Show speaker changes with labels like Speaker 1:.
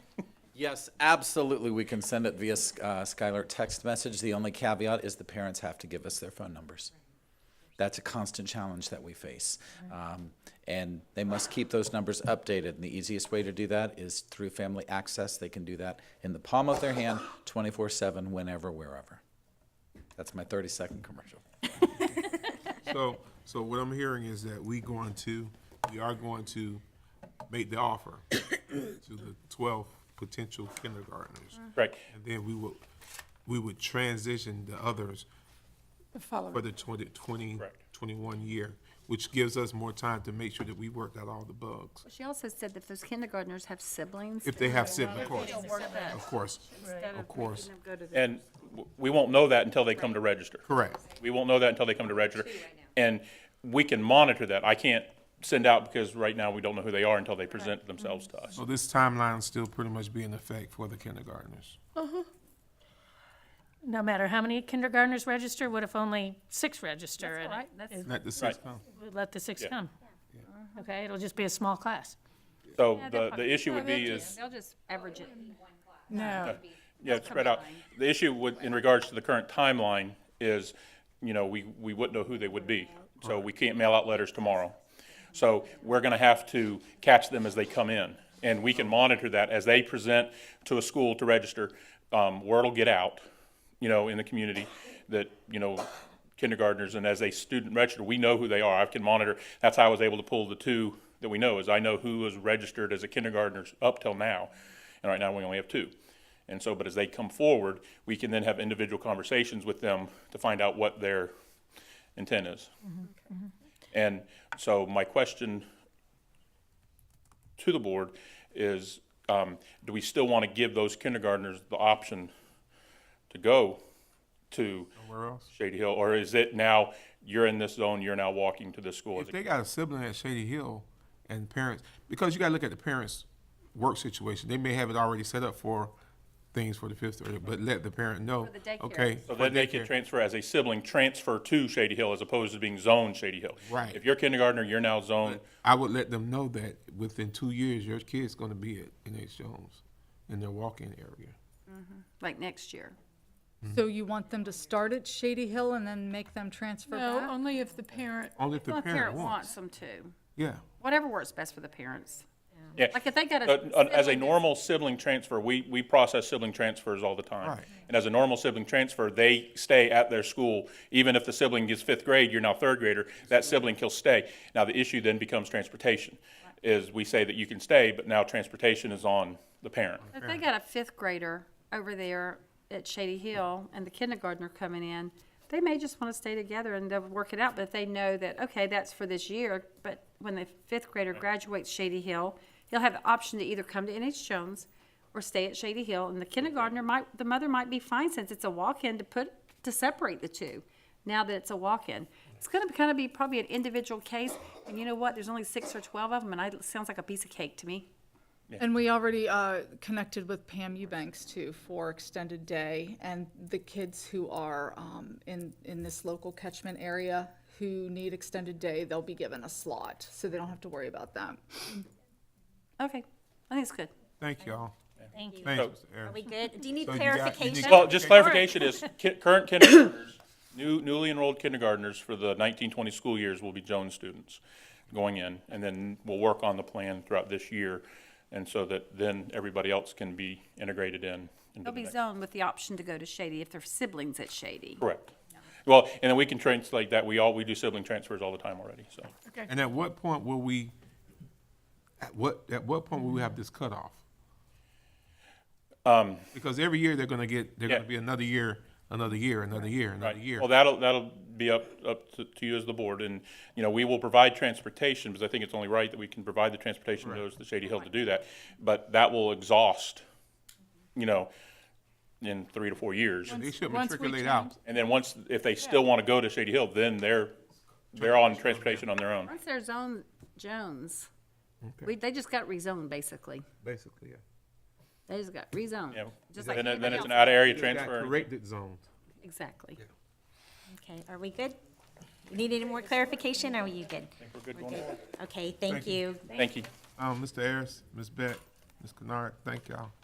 Speaker 1: Yes, absolutely, we can send it via Sk- uh, Skylar text message. The only caveat is the parents have to give us their phone numbers. That's a constant challenge that we face. Um, And they must keep those numbers updated, and the easiest way to do that is through Family Access. They can do that in the palm of their hand, 24/7, whenever, wherever. That's my 30-second commercial.
Speaker 2: So, so what I'm hearing is that we going to, we are going to make the offer to the twelve potential kindergartners.
Speaker 3: Mm.
Speaker 4: Correct.
Speaker 2: And then we will, we would transition the others for the 20 20
Speaker 4: Correct.
Speaker 2: 21 year, which gives us more time to make sure that we work out all the bugs.
Speaker 3: She also said that those kindergartners have siblings.
Speaker 2: If they have siblings, of
Speaker 3: They
Speaker 2: course,
Speaker 3: don't work that,
Speaker 2: of course,
Speaker 3: instead
Speaker 2: of
Speaker 3: of
Speaker 2: course.
Speaker 3: making them go to the.
Speaker 4: And w- we won't know that until they come to register.
Speaker 2: Correct.
Speaker 4: We won't know that until they come to register. And we can monitor that. I can't send out because right now we don't know who they are until they present themselves to us.
Speaker 2: So this timeline will still pretty much be in effect for the kindergartners.
Speaker 5: No matter how many kindergartners register, what if only six register? and
Speaker 3: Right, that's,
Speaker 2: Not the six,
Speaker 4: Right.
Speaker 2: no.
Speaker 5: we Let the six come. Okay, it'll just be a small class.
Speaker 4: So the, the issue would be is,
Speaker 3: they'll just average it.
Speaker 6: No.
Speaker 4: yeah, spread out. The issue would, in regards to the current timeline, is, you know, we, we wouldn't know who they would be. So we can't mail out letters tomorrow. So we're gonna have to catch them as they come in. And we can monitor that as they present to a school to register. Um, word will get out, you know, in the community that, you know, kindergartners and as they student register, we know who they are. I can monitor. That's how I was able to pull the two that we know is I know who is registered as a kindergartner up till now. And right now we only have two. And so, but as they come forward, we can then have individual conversations with them to find out what their intent is. And so my question to the board is, um, do we still want to give those kindergartners the option to go to
Speaker 2: Where else?
Speaker 4: Shady Hill? Or is it now, you're in this zone, you're now walking to this school?
Speaker 2: If
Speaker 4: as a
Speaker 2: they got a sibling at Shady Hill and parents, because you gotta look at the parents' work situation, they may have it already set up for things for the fifth grade, but let the parent know,
Speaker 3: For the daycare.
Speaker 2: okay.
Speaker 4: So
Speaker 2: for
Speaker 4: then they could
Speaker 2: daycare.
Speaker 4: transfer as a sibling, transfer to Shady Hill as opposed to being zoned Shady Hill.
Speaker 2: Right.
Speaker 4: If you're kindergartner, you're now zoned.
Speaker 2: I would let them know that within two years, your kid's gonna be at NH Jones in their walk-in area.
Speaker 3: Like next year.
Speaker 6: So you want them to start at Shady Hill and then make them transfer
Speaker 7: No,
Speaker 6: back?
Speaker 7: only if the parent,
Speaker 2: Only if the
Speaker 3: Well,
Speaker 2: parent wants.
Speaker 3: them to.
Speaker 2: Yeah,
Speaker 3: Whatever works best for the parents.
Speaker 4: Yeah.
Speaker 3: Like if they got a.
Speaker 4: But, uh, As a
Speaker 3: sibling
Speaker 4: normal sibling transfer, we, we process sibling transfers all the time.
Speaker 2: Right.
Speaker 4: And as a normal sibling transfer, they stay at their school. Even if the sibling is fifth grade, you're now third grader, that sibling will stay. Now, the issue then becomes transportation, is we say that you can stay, but now transportation is on the parent.
Speaker 3: If they got a fifth grader over there at Shady Hill and the kindergartner coming in, they may just want to stay together and they'll work it out, but if they know that, okay, that's for this year, but when the fifth grader graduates Shady Hill, he'll have the option to either come to NH Jones or stay at Shady Hill, and the kindergartner might, the mother might be fine since it's a walk-in to put, to separate the two, now that it's a walk-in. It's gonna kind of be probably an individual case, and you know what, there's only six or twelve of them, and I, it sounds like a piece of cake to me.
Speaker 7: and we already uh, connected with Pam Eubanks too for extended day, and the kids who are um, in, in this local catchment area who need extended day, they'll be given a slot, so they don't have to worry about that.
Speaker 3: Okay, I think it's good.
Speaker 2: thank y'all.
Speaker 5: Thank you.
Speaker 2: Thanks,
Speaker 4: So-
Speaker 2: Mr. Ayers.
Speaker 8: We good? Do you need
Speaker 2: So you got- you need
Speaker 8: clarification?
Speaker 4: Well, just clarification is, ki- current kindergartners, new, newly enrolled kindergartners for the nineteen twenty school years will be Jones students going in, and then we'll work on the plan throughout this year, and so that then everybody else can be integrated in. into
Speaker 3: They'll
Speaker 4: the
Speaker 3: be
Speaker 4: next-
Speaker 3: zoned with the option to go to Shady if their siblings at Shady.
Speaker 4: Correct. Well, and then we can translate that, we all, we do sibling transfers all the time already, so.
Speaker 2: And at what point will we, at what, at what point will we have this cutoff? Because every year they're gonna get, they're gonna
Speaker 4: Um, Yeah.
Speaker 2: be another year, another year, another year, another
Speaker 4: Right.
Speaker 2: year.
Speaker 4: Well, that'll, that'll be up, up to, to you as the board, and, you know, we will provide transportation, because I think it's only right that we can provide the transportation to those, the Shady Hill to do that. But that will exhaust, you know, in three to four years.
Speaker 2: They should
Speaker 7: Once we
Speaker 2: matriculate out.
Speaker 7: change-
Speaker 4: And then once, if they still want to go to Shady Hill, then they're, they're on transportation on their own.
Speaker 3: Once they're zoned Jones, we, they just got rezoned, basically.
Speaker 2: Basically, yeah.
Speaker 3: They just got rezoned.
Speaker 4: Yeah.
Speaker 3: Just like
Speaker 4: Then, it- then
Speaker 3: anybody
Speaker 4: it's an
Speaker 3: else.
Speaker 4: out-of-area
Speaker 2: They got
Speaker 4: transfer.
Speaker 2: Corrected zones.
Speaker 3: Exactly.
Speaker 8: Okay, are we good? You need any more clarification? Are you good? Okay, thank you.
Speaker 4: Thank you.
Speaker 2: Um, Mr. Ayers, Ms. Beck, Ms. Kennard, thank y'all.